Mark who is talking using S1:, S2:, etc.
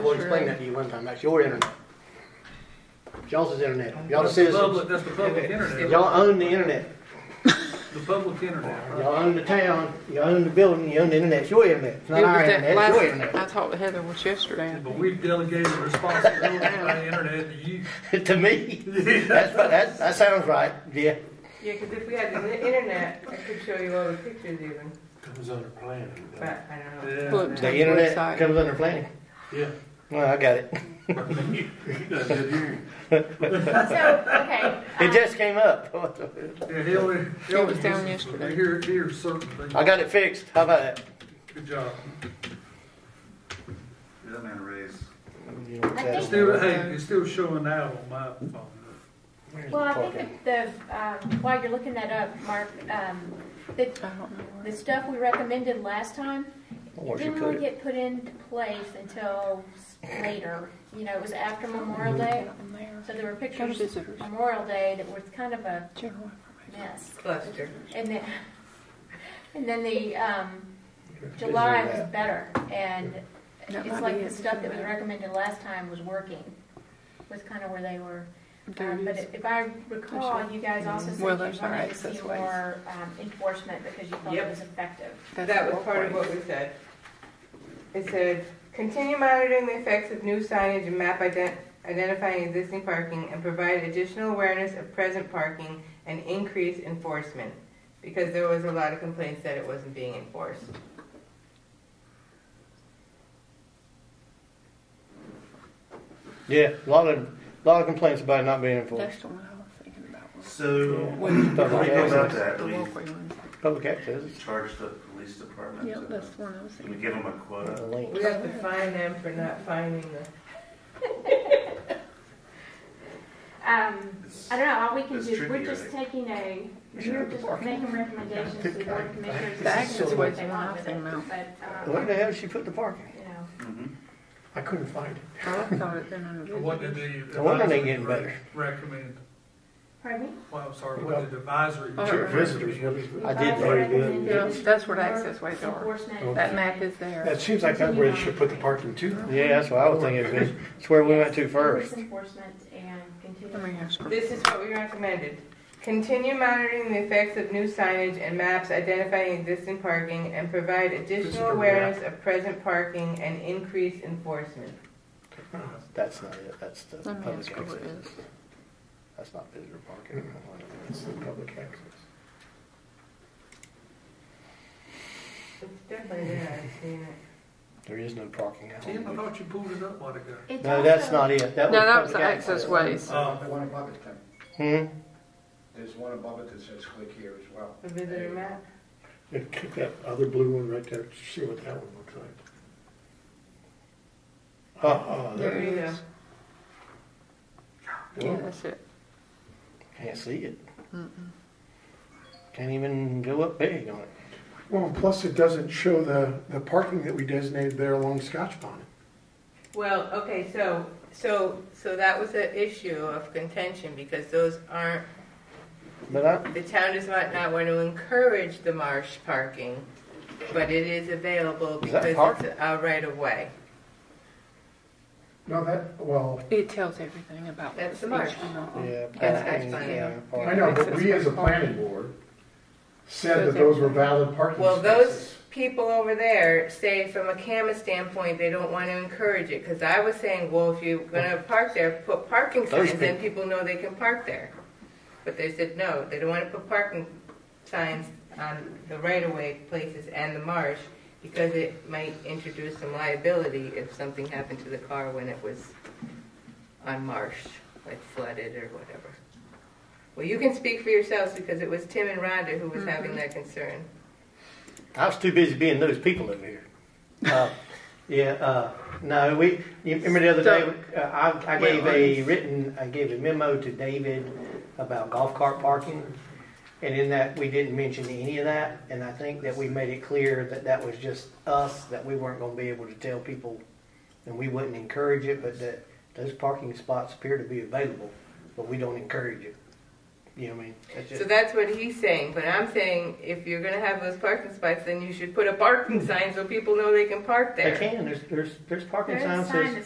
S1: We'll explain that to you one time. That's your internet. Y'all's is internet. Y'all the
S2: That's the
S1: citizens.
S2: public, that's the public internet,
S1: Y'all own the internet.
S2: the public internet, right?
S1: Y'all own the town. You own the building. You own the internet. It's your internet. It's not
S3: It was
S1: our
S3: that
S1: internet. It's
S3: last-
S1: your internet.
S3: I talked to Heather was yesterday.
S2: But we've delegated responsibility by the internet to you.
S1: to me, that's, that, that sounds right. Yeah.
S4: Yeah, because if we had the internet, I could show you all the pictures even,
S5: Comes under planning.
S4: but I don't know.
S2: Yeah.
S3: Look,
S1: The
S3: Town
S1: internet
S3: website.
S1: comes under planning.
S5: Yeah.
S1: Well, I got it.
S5: You done did your-
S6: So, okay.
S1: It
S6: um,
S1: just came up.
S2: Yeah, he only, he
S3: It
S2: only
S3: was down
S2: uses-
S3: yesterday.
S2: Here, here's certain things,
S1: I got it fixed. How about that?
S2: good job.
S7: Give that man a raise.
S6: I
S2: Still, hey, it's still showing now on my phone.
S6: Well, I think that the, um, while you're looking that up, Mark, um,
S3: I
S6: the,
S3: don't know.
S6: the stuff we recommended last time,
S1: Where'd you
S6: didn't
S1: put
S6: really
S1: it?
S6: get put into place until s- later. You know, it was after Memorial
S1: Mm-hmm.
S6: Day,
S3: Down there.
S6: so there were
S3: Go to
S6: pictures of
S3: visitors.
S6: Memorial Day that were kind of a
S3: General.
S6: mess.
S4: Cluster.
S6: And then, and then the, um, July was better, and
S3: That
S6: it's
S3: might
S6: like
S3: be
S6: the
S3: it.
S6: stuff that we recommended last time was working, was kind of where they were.
S3: There
S6: Um,
S3: it
S6: But
S3: is.
S6: if I recall, you guys also said you
S3: Well, there's our
S6: wanted to
S3: access
S6: see
S3: ways.
S6: more um, enforcement because you thought
S4: Yep.
S6: it was effective.
S3: That's
S4: That was
S3: four
S4: part of
S3: points.
S4: what we said. It said, continue monitoring the effects of new signage and map ident- identifying existing parking and provide additional awareness of present parking and increase enforcement. Because there was a lot of complaints that it wasn't being enforced.
S1: Yeah, a lot of, lot of complaints about it not being enforced.
S3: That's the one I was thinking about. was
S7: So,
S3: When
S1: Stuff
S7: Before
S1: like
S7: we go
S1: that.
S7: about that,
S3: the
S7: we
S3: walkway one.
S1: Public access.
S7: charge the police department.
S3: Yeah,
S7: to-
S3: that's the one I was
S7: Can we
S3: thinking.
S7: give them a quota?
S1: The link.
S4: We have to fine them for not finding the.
S6: Um, I don't know, all we can
S7: It's
S6: do, we're
S7: trickier,
S6: just
S7: eh?
S6: taking a,
S1: We should
S6: you're
S1: have the
S6: just
S1: parking.
S6: making recommendations to the board of commissioners.
S3: The access
S6: to
S3: ways
S6: what they
S3: are
S6: want
S3: nice
S6: with it,
S3: and now.
S6: But,
S1: Where
S6: um,
S1: the hell did she put the parking?
S6: you know,
S7: Mhm.
S1: I couldn't find it.
S3: I thought it then under
S2: What did
S3: visitors.
S2: the.
S1: No wonder they
S2: advisory
S1: getting better.
S2: Recommend,
S6: pardon me?
S2: well, I'm sorry, what did advisory?
S3: Oh, Sure,
S5: Visitors, what is
S1: I did
S6: Advisor
S1: very good.
S6: recommended
S3: Yeah, that's where the access ways are.
S6: Enforcement.
S3: That map is there.
S5: That seems like that's where they should put the parking too.
S1: Yeah, that's what I was thinking. It's- It's where we went to first.
S6: Increase Enforcement and continue.
S3: Let me ask her.
S4: This is what we recommended. Continue monitoring the effects of new signage and maps identifying existing parking and provide additional awareness of present parking and increase enforcement.
S1: That's not it. That's the
S3: Let me
S1: public
S3: ask her what it
S1: access.
S3: is.
S1: That's not visitor parking. It's the public access.
S4: It's definitely there, I've seen it.
S1: There is no parking out.
S2: Tim, I
S1: No,
S2: thought you pulled it up a while ago.
S6: It's
S1: that's
S6: also-
S1: not it.
S3: No,
S1: That was
S3: that was the
S1: public
S3: access ways.
S2: Um,
S8: One above it, Tim.
S1: Hmm?
S8: There's one above it that says click here as well.
S4: The visitor map.
S5: And kick that other blue one right there, see what that one looks like.
S1: Oh,
S5: Uh-uh, there-
S3: There it
S4: There you go.
S3: is. Yeah, that's it.
S1: Can't see it. Can't even go up big on it.
S5: Well, and plus it doesn't show the, the parking that we designated there along Scotch Pond.
S4: Well, okay, so, so, so that was an issue of contention because those aren't,
S1: But I,
S4: the town does not, not want to encourage the marsh parking, but it is available
S1: Is that
S4: because it's a right of way.
S8: No, that, well,
S3: It tells everything about.
S4: That's the
S3: each
S4: marsh.
S3: one of them.
S1: yeah.
S4: That's
S1: parking,
S4: actually-
S1: yeah,
S8: I
S1: parking.
S8: know, but we as a planning board said that those were valid parking
S4: Well, those
S8: spaces.
S4: people over there say from a camera standpoint, they don't want to encourage it, because I was saying, well, if you're gonna park there, put parking
S1: Those
S4: signs, then people know they can park there. But they said, no, they don't want to put parking signs on the right-of-way places and the marsh, because it might introduce some liability if something happened to the car when it was on marsh, like flooded or whatever. Well, you can speak for yourselves, because it was Tim and Rhonda who was having that concern.
S1: I was too busy being those people over here. Uh, yeah, uh, no, we, you remember the other day, uh, I, I gave a written, I gave a memo to David about golf cart parking. And in that, we didn't mention any of that. And I think that we made it clear that that was just us, that we weren't going to be able to tell people and we wouldn't encourage it, but that those parking spots appear to be available, but we don't encourage it. You know what I mean? That's
S4: So
S1: just-
S4: that's what he's saying, but I'm saying if you're gonna have those parking spots, then you should put a parking sign so people know they can park
S1: They
S4: there.
S1: can, there's, there's, there's parking
S6: There's a
S1: signs
S6: sign
S1: says